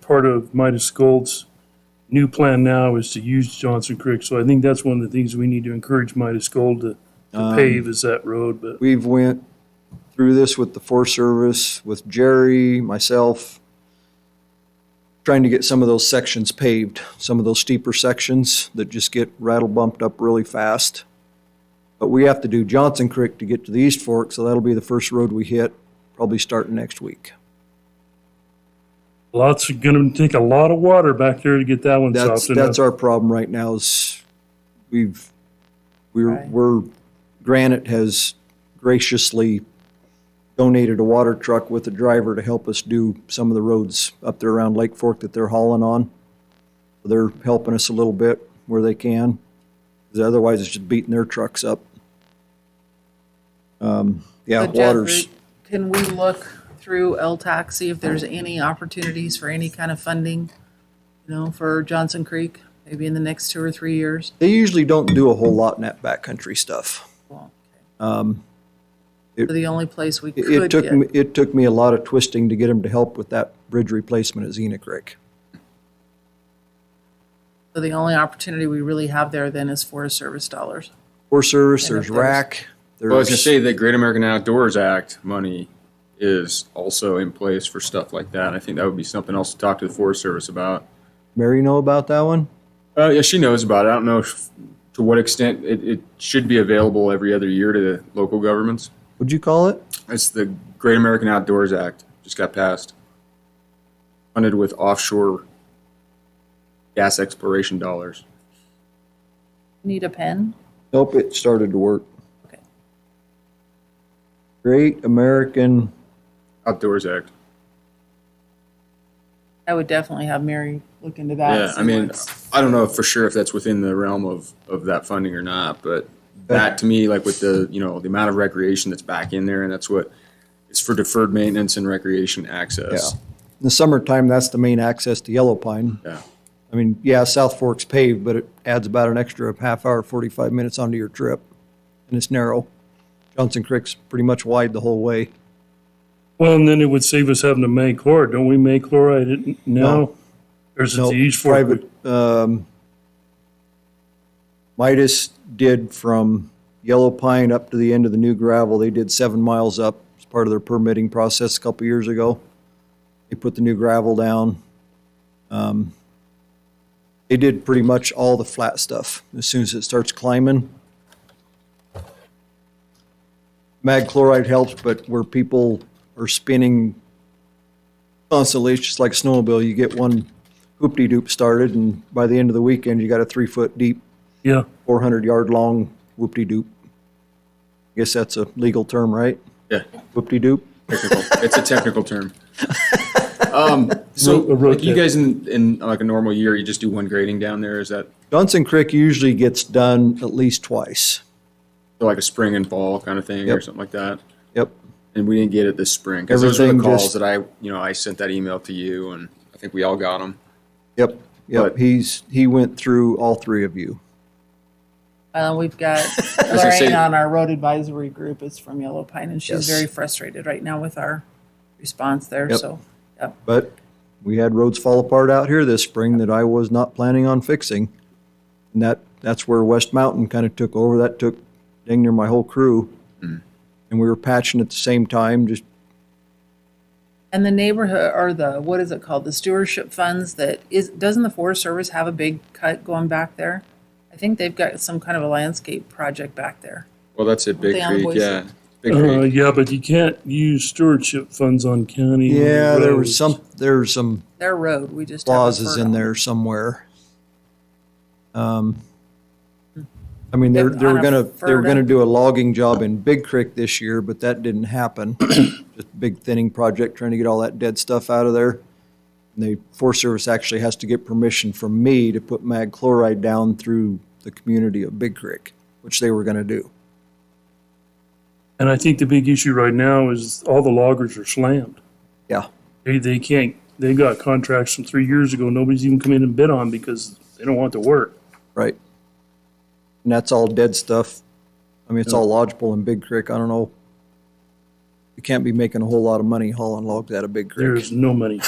part of Midas Gold's new plan now is to use Johnson Creek. So I think that's one of the things we need to encourage Midas Gold to Um, to pave is that road, but We've went through this with the Forest Service, with Jerry, myself, trying to get some of those sections paved, some of those steeper sections that just get rattle bumped up really fast. But we have to do Johnson Creek to get to the East Fork, so that'll be the first road we hit, probably starting next week. lots, are gonna take a lot of water back there to get that one That's, soft that's enough. our problem right now is we've, we're, we're, Granite has graciously donated a water truck with a driver to help us do some of the roads up there around Lake Fork that they're hauling on. They're helping us a little bit where they can, 'cause otherwise it's just beating their trucks up. Um, yeah, So Jeff, waters. Can we look through LTAC, see if there's any opportunities for any kind of funding, you know, for Johnson Creek, maybe in the next two or three years? They usually don't do a whole lot in that backcountry stuff. Well, it- okay. The only place we It- It could took, get, me- it took me a lot of twisting to get him to help with that bridge replacement at Xena Creek. so the only opportunity we really have there then is Forest Service dollars. Forest Service, there's if there's- RAC, Well, I was gonna there's, say the Great American Outdoors Act money is also in place for stuff like that. I think that would be something else to talk to the Forest Service about. Mary know about that one? Uh, yeah, she knows about it. I don't know if, to what extent it, it should be available every other year to the local governments. What'd you call it? It's the Great American Outdoors Act, just got passed. Funded with offshore gas exploration dollars. Need a pen? Nope, it started to work. Okay. Great American, Outdoors Act. I would definitely have Mary look into that. Yeah, I see mean, what's- I don't know for sure if that's within the realm of, of that funding or not, but that to me, like with the, you know, the amount of recreation that's back in there and that's what, it's for deferred maintenance and recreation access. Yeah. in the summertime, that's the main access to Yellow Pine. Yeah. I mean, yeah, South Fork's paved, but it adds about an extra half hour, 45 minutes onto your trip. And it's narrow. Johnson Creek's pretty much wide the whole way. Well, and then it would save us having to make chloride. Don't we make chloride it now? Or is it No, the East Fork? private, um, Midas did from Yellow Pine up to the end of the new gravel, they did seven miles up as part of their permitting process a couple years ago. They put the new gravel down. Um, They did pretty much all the flat stuff as soon as it starts climbing. Mag chloride helps, but where people are spinning constantly, it's just like a snowmobile, you get one hoop-de-doop started, and by the end of the weekend, you got a three-foot-deep, Yeah, 400-yard-long whoop-de-doop. Guess that's a legal term, right? Yeah, Whoop-de-doop? technical. It's a technical term. Um, so Ro- a road like you tip. guys in, in like a normal year, you just do one grading down there? Is that Johnson Creek usually gets done at least twice. like a spring and fall kind of thing or Yep. something like that? Yep. And we didn't get it this spring because those were the Everything calls just- that I, you know, I sent that email to you and I think we all got them. Yep, yep. But- He's, he went through all three of you. Uh, we've got gonna say- Lorraine on our road advisory group is from Yellow Pine and Yes. she's very frustrated right now with our response there, Yep. so. Yep. But we had roads fall apart out here this spring that I was not planning on fixing. And that, that's where West Mountain kind of took over. That took dang near my whole crew. And we were patching at the same time, just And the neighborhood, or the, what is it called, the stewardship funds that is, doesn't the Forest Service have a big cut going back there? I think they've got some kind of a landscape project back there. Well, that's it, Big they on Creek, Boise? yeah. Big uh, Creek. yeah, but you can't use stewardship funds on county. Yeah, there was roads. some, there's some Their road, we just. have a clauses bird in on. there somewhere. Um, I mean, they Yeah, they were on a gonna, they were gonna Ferda. do a logging job in Big Creek this year, but that didn't happen. Just big thinning project, trying to get all that dead stuff out of there. And the Forest Service actually has to get permission from me to put mag chloride down through the community of Big Creek, which they were gonna do. And I think the big issue right now is all the loggers are slammed. Yeah, They, they can't, they got contracts from three years ago, nobody's even come in and bid on because they don't want to work. right. And that's all dead stuff. I mean, it's all lodgepole in Big Creek. I don't know. You can't be making a whole lot of money hauling logs out of Big Creek. There's no money.